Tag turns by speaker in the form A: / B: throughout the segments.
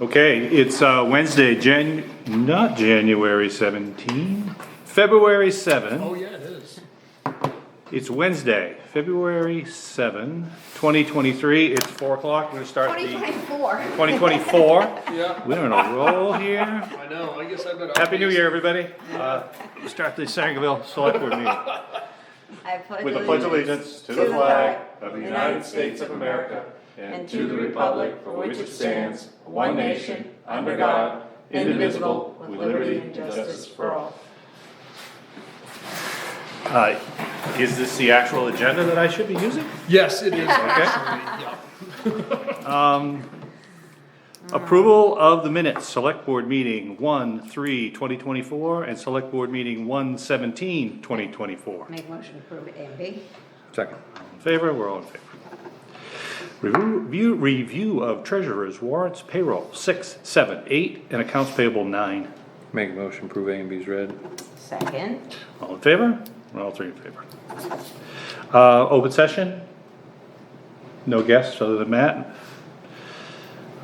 A: Okay, it's uh, Wednesday, Jan, not January 17, February 7.
B: Oh, yeah, it is.
A: It's Wednesday, February 7, 2023. It's 4 o'clock. We're gonna start the
C: 2024.
A: 2024.
B: Yeah,
A: We're on a roll here.
B: I know, I guess I better.
A: Happy New Year, everybody. Uh, we'll Start the Sangerville Select Board meeting
C: I pledge
A: with a pledge of allegiance to the flag of the United States of America and to the republic for which it stands, one nation, under God, indivisible, with liberty and justice for all. Uh, Is this the actual agenda that I should be using?
B: Yes, it is.
A: Okay.
B: Yeah.
A: Approval of the minutes, select board meeting one, three, twenty twenty-four, and select board meeting one, seventeen, twenty twenty-four.
C: Make motion to approve A and B.
A: Second. All in favor, we're all in favor. Review, review of treasurer's warrants payroll, six, seven, eight, and accounts payable, nine.
D: Make a motion, prove A and B's read.
C: Second.
A: All in favor? We're all three in favor. Uh, open session? No guests other than Matt?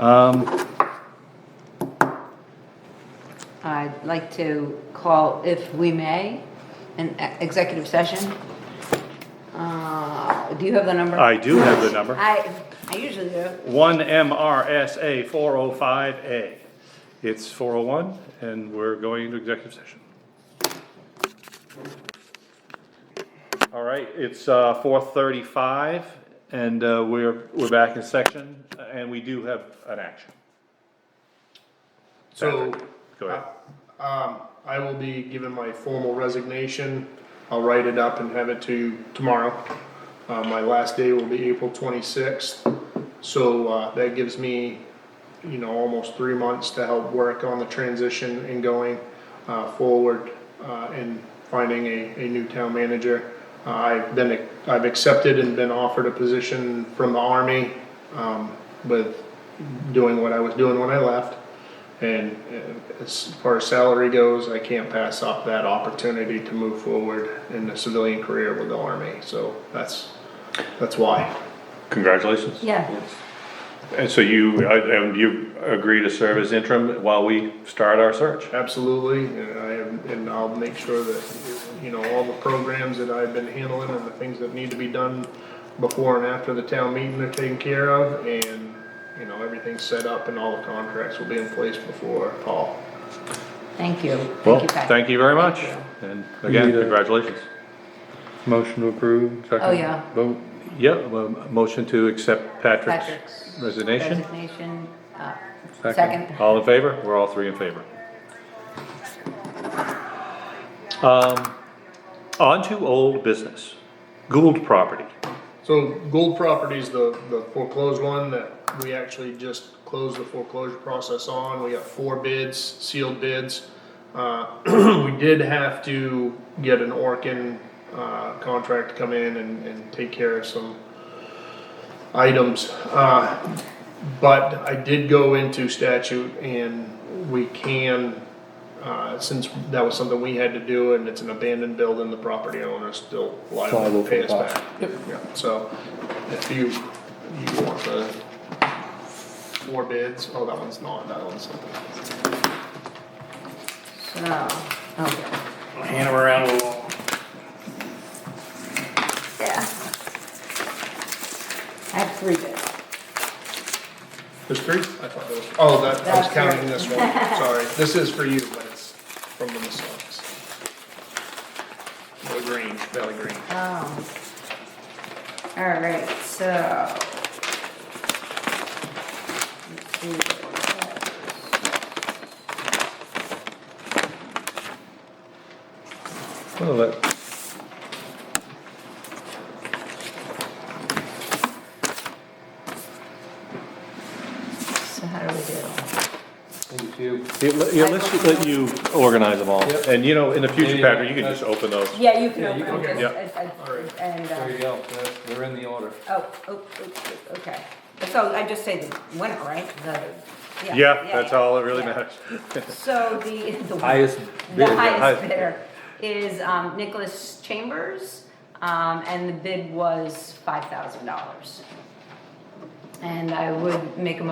A: Um,
C: I'd like to call, if we may, an e- executive session. Uh, Do you have the number?
A: I do have the number.
C: I, I usually do.
A: One MRSA four oh five A. It's four oh one, and we're going into executive session. All right, it's, uh, four thirty-five, and, uh, we're, we're back in section, and we do have an action.
B: So,
A: Go ahead.
B: um, I will be giving my formal resignation. I'll write it up and have it to you tomorrow. Uh, my last day will be April twenty-sixth. So, uh, that gives me, you know, almost three months to help work on the transition and going, uh, forward, uh, and finding a, a new town manager. Uh, I've been, I've accepted and been offered a position from the army, um, with doing what I was doing when I left. And uh, as far as salary goes, I can't pass up that opportunity to move forward in the civilian career with the Army. So that's, that's why.
A: Congratulations.
C: Yeah.
A: And so you, and you agree to serve as interim while we start our search?
B: Absolutely, and I am, and I'll make sure that, you know, all the programs that I've been handling and the things that need to be done before and after the town meeting are taken care of, and, you know, everything's set up and all the contracts will be in place before fall.
C: Thank you.
A: Well,
C: you, Pat.
A: thank you very much, and again,
D: Need a-
A: congratulations.
D: Motion to approve, second.
C: Oh, yeah.
D: Vote.
A: Yeah, well, a motion to accept Patrick's
C: Patrick's
A: resignation.
C: Resignation. uh,
D: Second.
C: Second.
A: All in favor? We're all three in favor. Um, on to old business, Gould property.
B: So Gold Properties, the, the foreclosed one that we actually just closed the foreclosure process on, we got four bids, sealed bids. Uh, we did have to get an Orkin, uh, contract to come in and, and take care of some items. Uh, but I did go into statute and we can, uh, since that was something we had to do and it's an abandoned building, the property owner is still liable
D: Liable
B: to
D: for
B: pay us
D: cost.
B: back. Yeah, So if you, you want the four bids, oh, that one's not, that one's something.
C: So, Oh, okay.
E: Hand them around a little.
C: Yeah. I have three bids.
B: There's three? I thought there was. Oh, that, I was
C: That's
B: counting
C: right.
B: this one, sorry. This is for you, but it's from the Masons. The Grange, Valley Grange.
C: Oh. All right, so. Let's see what it
D: Well, that-
C: says. So how do we do?
D: Thank you.
A: Yeah, let- yeah, let's just let you organize them all,
D: Yep.
A: and you know, in the future,
D: Yeah, yeah,
A: Patrick, you can just open those.
C: Yeah, you can
D: Yeah, you
C: open
D: can
C: it.
A: open
C: just- I- I- And,
D: There you
C: uh,
D: go, They're- they're in the order.
C: oh, oh, oh, oh, okay. So I just say the winner, right? The-
A: Yeah, that's all that really
C: yeah.
A: matters.
C: So the. the-
D: Highest
C: The
D: bid, yeah,
C: highest
D: highest
C: bidder is um, Nicholas Chambers, um, and the bid was five thousand dollars. And I would make a